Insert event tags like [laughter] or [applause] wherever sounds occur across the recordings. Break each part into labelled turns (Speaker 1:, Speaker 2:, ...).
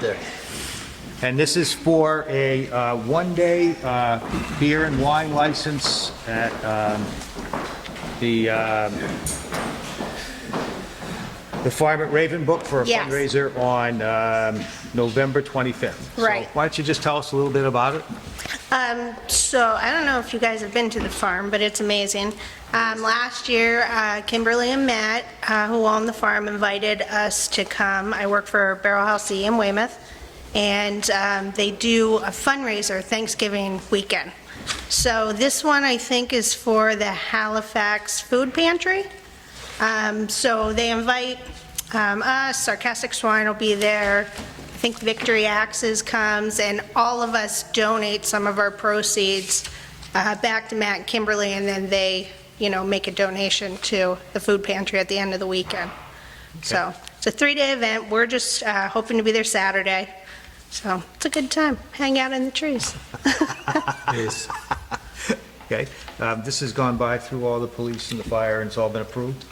Speaker 1: There. And this is for a uh, one-day uh, beer and wine license at um, the, um, the Farm at Raven Book for a
Speaker 2: Yes.
Speaker 1: fundraiser on um, November 25th. So
Speaker 2: Right.
Speaker 1: Why don't you just tell us a little bit about it?
Speaker 2: Um, So I don't know if you guys have been to the farm, but it's amazing. Um, Last year, uh, Kimberly and Matt, uh, who own the farm, invited us to come. I work for Barrel House E in Weymouth, and um, they do a fundraiser Thanksgiving weekend. So this one, I think, is for the Halifax Food Pantry. Um, So they invite um, us, Sarcastic Swine will be there, I think Victory Axes comes, and all of us donate some of our proceeds uh, back to Matt and Kimberly, and then they, you know, make a donation to the food pantry at the end of the weekend. So it's a three-day event, we're just uh, hoping to be there Saturday, so it's a good time, hang out in the trees.
Speaker 1: Okay? Um, This has gone by through all the police and the fire, and it's all been approved?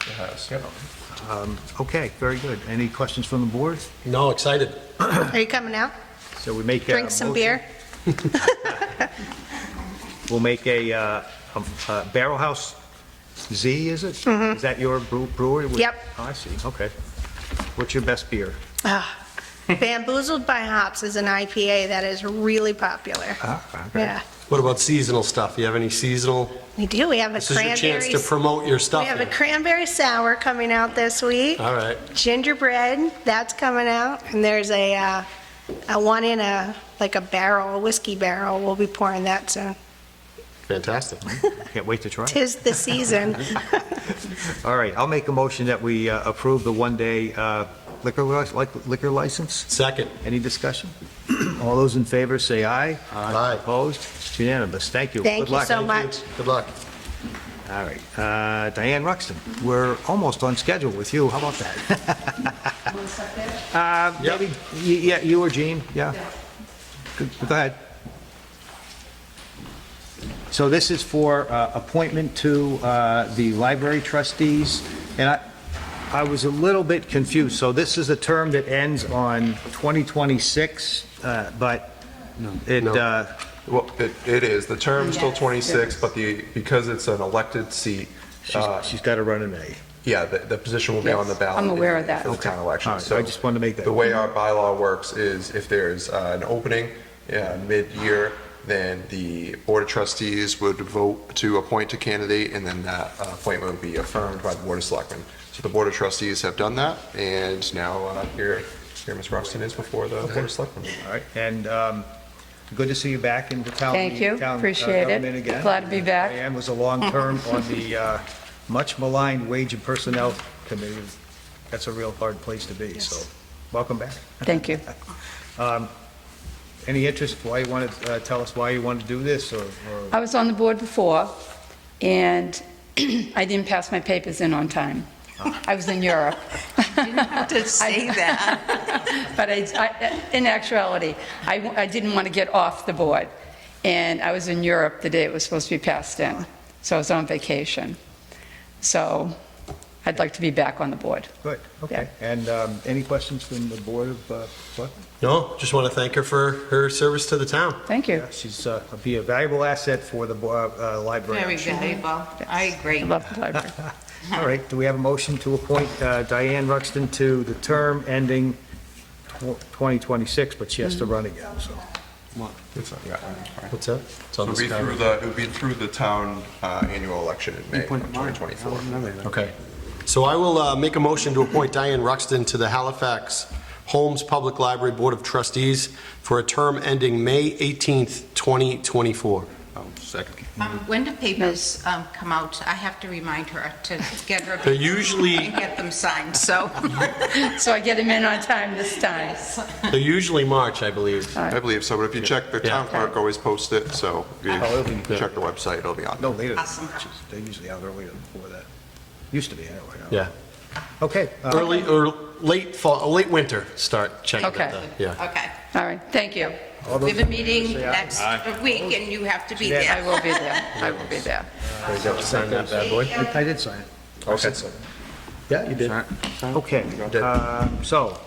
Speaker 1: Um, Okay, very good. Any questions from the board?
Speaker 3: No, excited.
Speaker 2: Are you coming out?
Speaker 1: So we make a
Speaker 2: Drink some
Speaker 1: motion.
Speaker 2: beer?
Speaker 1: We'll make a, uh, um, uh, Barrel House Z, is it? Is that your brew- brewery?
Speaker 2: Mm-hmm. Yep.
Speaker 1: Oh, I see, okay. What's your best beer?
Speaker 2: Ah, Bamboozled by Hops is an IPA that is really popular. Yeah,
Speaker 3: What about seasonal stuff? You have any seasonal?
Speaker 2: we do, we have a
Speaker 3: This is your chance
Speaker 2: cranberry,
Speaker 3: to promote your
Speaker 2: we
Speaker 3: stuff
Speaker 2: have a
Speaker 3: here.
Speaker 2: cranberry sour coming out this week,
Speaker 3: All right.
Speaker 2: gingerbread, that's coming out, and there's a, uh, a one in a, like a barrel, a whiskey barrel, we'll be pouring that soon.
Speaker 3: Fantastic.
Speaker 1: Can't wait to try it.
Speaker 2: Tis the
Speaker 3: [laughs]
Speaker 2: season.
Speaker 1: All right, I'll make a motion that we uh, approve the one-day uh, liquor li- like- liquor license.
Speaker 3: Second.
Speaker 1: Any
Speaker 2: [clears throat]
Speaker 1: discussion? All those in favor, say aye.
Speaker 3: Aye.
Speaker 1: Opposed? It's unanimous, thank you.
Speaker 2: Thank
Speaker 1: Good
Speaker 2: you
Speaker 1: luck.
Speaker 2: so much.
Speaker 3: Good luck.
Speaker 1: All right, Uh, Diane Ruxton, we're almost on schedule with you, how about that? [laughs] Uh,
Speaker 3: Yep.
Speaker 1: maybe- y- Yeah, you or Jean, yeah. Good, Go ahead. So this is for uh, appointment to uh, the library trustees, and I, I was a little bit confused. So this is a term that ends on 2026, uh, but it,
Speaker 3: No.
Speaker 1: uh,
Speaker 4: Well, it, it is. The term's till 26, but the, because it's an elected seat, uh,
Speaker 1: she's- she's got to run in May.
Speaker 4: yeah, the, the position will be on the
Speaker 5: Yes,
Speaker 4: ballot.
Speaker 5: I'm aware of
Speaker 4: in-
Speaker 5: that.
Speaker 4: For the town
Speaker 1: All
Speaker 4: election.
Speaker 1: right, I just wanted to make that-
Speaker 4: The way our bylaw works is if there's uh, an opening uh, mid-year, then the Board of Trustees would vote to appoint a candidate, and then that uh, appointment would be affirmed by the Board of Selectmen. So the Board of Trustees have done that, and now uh, here, here Ms. Ruxton is before the Board of Selectmen.
Speaker 1: All right, and um, good to see you back in the town.
Speaker 5: Thank you.
Speaker 1: town, uh,
Speaker 5: Appreciate it.
Speaker 1: government again.
Speaker 5: Glad to be back.
Speaker 1: Diane was a long
Speaker 5: [laughs]
Speaker 1: term on the uh, much maligned Wage and Personnel Committee. That's a real hard place to be, so welcome back.
Speaker 5: Thank you.
Speaker 1: Any interest, why you want to, tell us why you want to do this, or? or-
Speaker 5: I was on the board before, and [clears throat] I didn't pass my papers in on time. I was in
Speaker 6: [laughs]
Speaker 5: Europe. [laughs]
Speaker 6: to say that.
Speaker 5: But I- I, in actuality, I, I didn't want to get off the board, and I was in Europe the day it was supposed to be passed in, so I was on vacation. So I'd like to be back on the board.
Speaker 1: Good, okay. And um, any questions from the Board of uh, Selectmen?
Speaker 3: No, just want to thank her for her service to the town.
Speaker 5: Thank you.
Speaker 1: She's, uh, be a valuable asset for the bo- uh, uh, library.
Speaker 6: Very valuable. I agree.
Speaker 5: I love the library.
Speaker 1: All right, do we have a motion to appoint uh, Diane Ruxton to the term ending tw- 2026, but she has to run again, so.
Speaker 4: It's, uh, yeah, all right.
Speaker 3: What's that? It's on
Speaker 4: It would
Speaker 3: the
Speaker 4: be through
Speaker 3: sky.
Speaker 4: the, it would be through the town uh, annual election in May of 2024.
Speaker 3: Okay. So I will uh, make a motion to appoint Diane Ruxton to the Halifax Holmes Public Library Board of Trustees for a term ending May 18th, 2024.
Speaker 4: Oh, Second.
Speaker 6: Um, When do papers um, come out? I have to remind her to get
Speaker 1: [laughs]
Speaker 6: her.
Speaker 3: They're usually-
Speaker 6: and Get them signed, so.
Speaker 5: So I get him in on time this
Speaker 6: [laughs]
Speaker 5: time.
Speaker 3: They're usually March, I believe.
Speaker 4: I believe so, but if you check, the town clerk always posts it, so if
Speaker 1: Oh, it'll
Speaker 4: you
Speaker 1: be-
Speaker 4: check the website, it'll be on.
Speaker 1: No, later. than
Speaker 6: Awesome.
Speaker 1: March. They're usually out earlier than before that. Used to be, anyway.
Speaker 3: Yeah.
Speaker 1: Okay. uh,
Speaker 3: Early, or late fall, late winter, start checking. at
Speaker 5: Okay.
Speaker 3: the- Yeah.
Speaker 6: Okay.
Speaker 5: All right, thank you.
Speaker 1: all
Speaker 6: We
Speaker 1: those-
Speaker 6: have a meeting
Speaker 1: Say aye.
Speaker 6: next week, and you have to be
Speaker 1: Yeah.
Speaker 5: I
Speaker 6: there.
Speaker 5: will be there. I will be there.
Speaker 3: Sign that bad boy.
Speaker 1: I I did sign it. Yeah, you did. Okay, um, so,